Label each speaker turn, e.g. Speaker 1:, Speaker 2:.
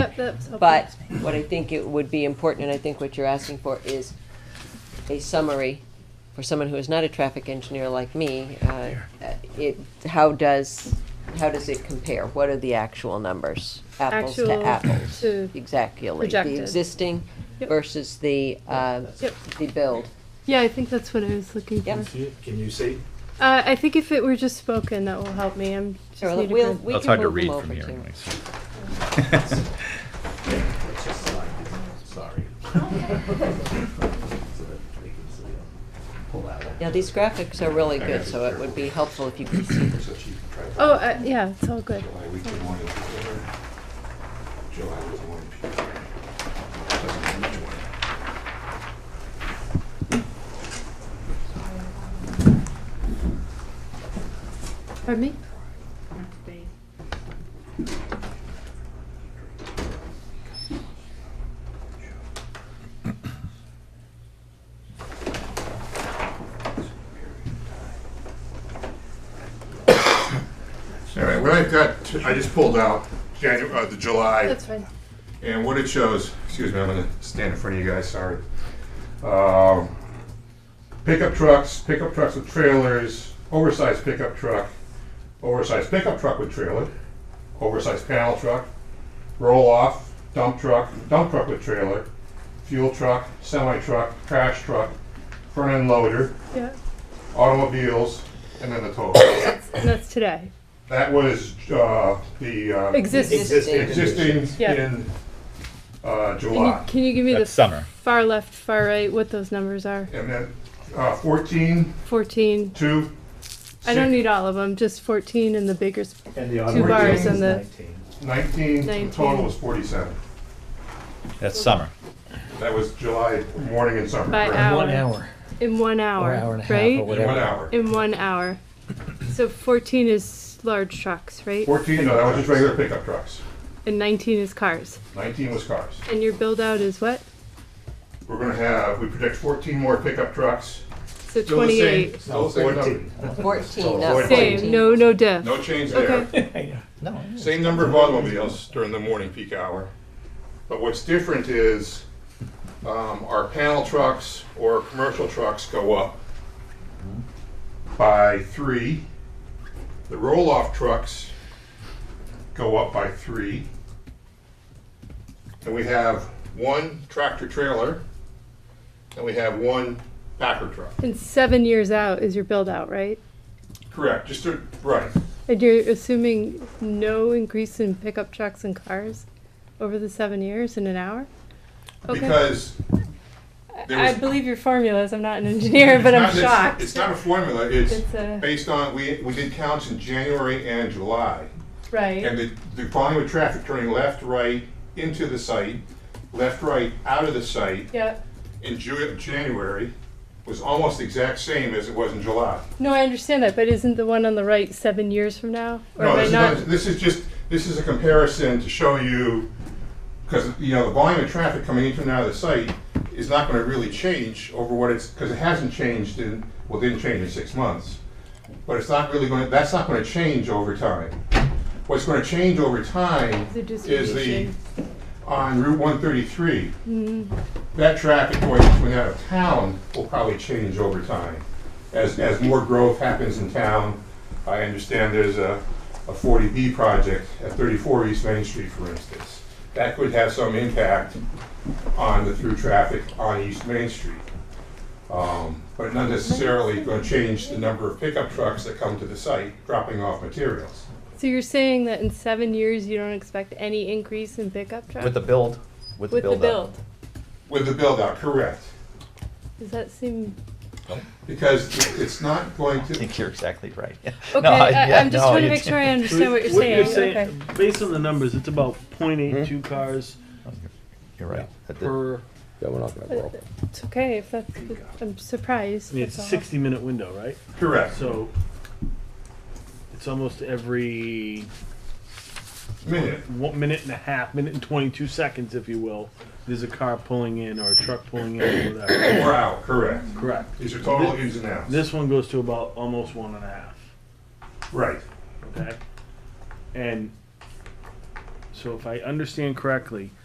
Speaker 1: That- that's helpful.
Speaker 2: But what I think it would be important, and I think what you're asking for, is a summary for someone who is not a traffic engineer like me. uh, It, how does, how does it compare? What are the actual numbers? Apples to
Speaker 1: Actual
Speaker 2: apples.
Speaker 1: to-
Speaker 2: Exactly.
Speaker 1: Projected.
Speaker 2: The existing
Speaker 1: Yep.
Speaker 2: versus the, uh,
Speaker 1: Yep.
Speaker 2: the build.
Speaker 1: Yeah, I think that's what I was looking for.
Speaker 2: Yep.
Speaker 3: Can you see?
Speaker 1: Uh, I think if it were just spoken, that will help me. I'm just
Speaker 2: So
Speaker 1: need to
Speaker 2: we'll,
Speaker 1: grab-
Speaker 2: we
Speaker 4: That's
Speaker 2: can
Speaker 4: hard to
Speaker 2: move them
Speaker 4: read
Speaker 2: over
Speaker 4: from here
Speaker 2: to-
Speaker 4: anyway, so.
Speaker 3: Let's just slide this, sorry. So that they can see it. Pull out.
Speaker 2: Now, these graphics are really good, so it would be helpful if you could see them.
Speaker 5: So she tried
Speaker 1: Oh, uh, yeah, it's all good.
Speaker 5: July week to morning. July was the one. Doesn't matter which one.
Speaker 1: Pardon me?
Speaker 5: All right, what I've got, I just pulled out Janu, uh, the July,
Speaker 1: That's fine.
Speaker 5: and what it shows, excuse me, I'm gonna stand in front of you guys, sorry. Um, Pickup trucks, pickup trucks with trailers, oversized pickup truck, oversized pickup truck with trailer, oversized panel truck, roll-off, dump truck, dump truck with trailer, fuel truck, semi-truck, crash truck, front-end loader,
Speaker 1: Yeah,
Speaker 5: automobiles, and then the total.
Speaker 1: and that's today.
Speaker 5: That was uh, the uh,
Speaker 1: Exists.
Speaker 5: existing
Speaker 1: Yeah.
Speaker 5: in
Speaker 1: Can
Speaker 5: uh,
Speaker 1: you,
Speaker 5: July.
Speaker 1: can you give me the
Speaker 4: That's summer.
Speaker 1: far left, far right, what those numbers are?
Speaker 5: And then uh, 14,
Speaker 1: 14.
Speaker 5: 2,
Speaker 1: I don't need all of them, just 14 and the bigger. sp-
Speaker 3: And the
Speaker 1: Two
Speaker 5: bars
Speaker 3: automobile
Speaker 1: and
Speaker 3: is
Speaker 1: the-
Speaker 3: 19.
Speaker 5: 19, the
Speaker 1: 19.
Speaker 5: total was 47.
Speaker 4: That's summer.
Speaker 5: That was July morning and summer.
Speaker 1: By
Speaker 5: correct?
Speaker 1: hour.
Speaker 6: One hour,
Speaker 1: In one hour,
Speaker 6: or hour and
Speaker 1: right?
Speaker 6: a half, or
Speaker 5: In one
Speaker 6: whatever.
Speaker 5: hour.
Speaker 1: In one hour. So 14 is large trucks, right?
Speaker 5: 14, no, that was just regular pickup trucks.
Speaker 1: And 19 is cars.
Speaker 5: 19 was cars.
Speaker 1: And your build out is what?
Speaker 5: We're going to have, we predict 14 more pickup trucks.
Speaker 1: So
Speaker 5: Still the same-
Speaker 1: 28.
Speaker 5: Still the same number.
Speaker 3: 14.
Speaker 2: Fourteen, not
Speaker 5: Fourteen.
Speaker 1: Same,
Speaker 2: fourteen.
Speaker 1: no, no diff.
Speaker 5: No change there.
Speaker 1: Okay,
Speaker 6: No,
Speaker 5: Same number of automobiles during the morning peak hour. But what's different is um, our panel trucks or commercial trucks go up by three. The roll-off trucks go up by three. And we have one tractor trailer and we have one packer truck.
Speaker 1: and seven years out is your build out, right?
Speaker 5: Correct, just to, right.
Speaker 1: And you're assuming no increase in pickup trucks and cars over the seven years in an hour? Okay.
Speaker 5: Because there
Speaker 1: I
Speaker 5: was-
Speaker 1: believe your formulas, I'm not an engineer, but I'm
Speaker 5: It's not- it's-
Speaker 1: shocked.
Speaker 5: It's not a formula, it's
Speaker 1: It's a-
Speaker 5: based on, we, we did counts in January and July. And
Speaker 1: Right,
Speaker 5: the, the volume of traffic turning left, right, into the site, left, right, out of the site
Speaker 1: yeah.
Speaker 5: in Ju- January was almost the exact same as it was in July.
Speaker 1: No, I understand that, but isn't the one on the right seven years from now? Or
Speaker 5: No,
Speaker 1: am I
Speaker 5: this is,
Speaker 1: not-
Speaker 5: not- this is just, this is a comparison to show you, because, you know, the volume of traffic coming into and out of the site is not gonna really change over what it's, because it hasn't changed in, well, it didn't change in six months. But it's not really gonna, that's not gonna change over time. What's gonna change over time
Speaker 1: The
Speaker 5: is the,
Speaker 1: distribution. Mm-hmm.
Speaker 5: on Route one thirty-three. That traffic going in and out of town will probably change over time. As, as more growth happens in town, I understand there's a, a forty B project at thirty-four East Main Street, for instance. That could have some impact on the through traffic on East Main Street. Um, But not necessarily gonna change the number of pickup trucks that come to the site dropping off materials.
Speaker 1: So you're saying that in seven years, you don't expect any increase in pickup trucks?
Speaker 6: with the build, with the
Speaker 1: With the
Speaker 6: build up.
Speaker 1: build?
Speaker 5: With the build-out, correct.
Speaker 1: Does that seem?
Speaker 5: Because it- it's not going
Speaker 6: I
Speaker 5: to,
Speaker 6: think you're exactly right. Yeah.
Speaker 1: Okay,
Speaker 6: No,
Speaker 1: I,
Speaker 6: yeah,
Speaker 1: I'm just
Speaker 6: no,
Speaker 1: trying to
Speaker 6: you
Speaker 1: make
Speaker 6: did.
Speaker 1: sure I understand what you're saying. Okay.
Speaker 7: Based on the numbers, it's about .82 cars
Speaker 6: You're right. That did-
Speaker 7: per,
Speaker 8: Yeah, we're not gonna grow.
Speaker 1: It's okay if that's. I'm surprised.
Speaker 7: I mean, it's a
Speaker 1: that's all.
Speaker 7: 60-minute window, right?
Speaker 5: correct.
Speaker 7: So it's almost every
Speaker 5: Minute.
Speaker 7: one minute and a half, minute and 22 seconds, if you will, there's a car pulling in or a truck pulling in or whatever.
Speaker 5: Or out, correct.
Speaker 7: Correct.
Speaker 5: These are total ins and outs.
Speaker 7: This one goes to about almost one and a half.
Speaker 5: Right.
Speaker 7: okay? And So if I understand correctly,